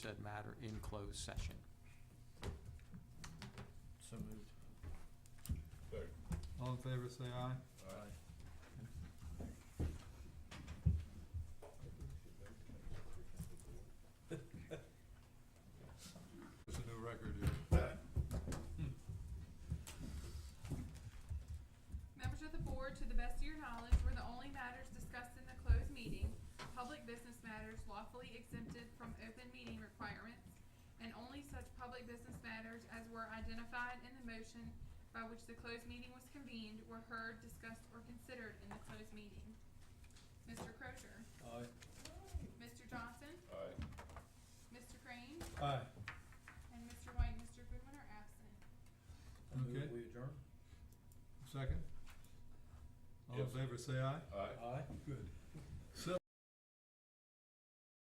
said matter in closed session. So moved. All in favor, say aye. It's a new record here. Members of the board, to the best of your knowledge, were the only matters discussed in the closed meeting, public business matters lawfully exempted from open meeting requirements, and only such public business matters as were identified in the motion by which the closed meeting was convened were heard, discussed, or considered in the closed meeting. Mr. Crozier? Aye. Mr. Johnson? Aye. Mr. Crane? Aye. And Mr. White and Mr. Goodwin are absent. I move Okay. we adjourn? Second? All in Yes. favor, say aye. Aye. Aye. Good.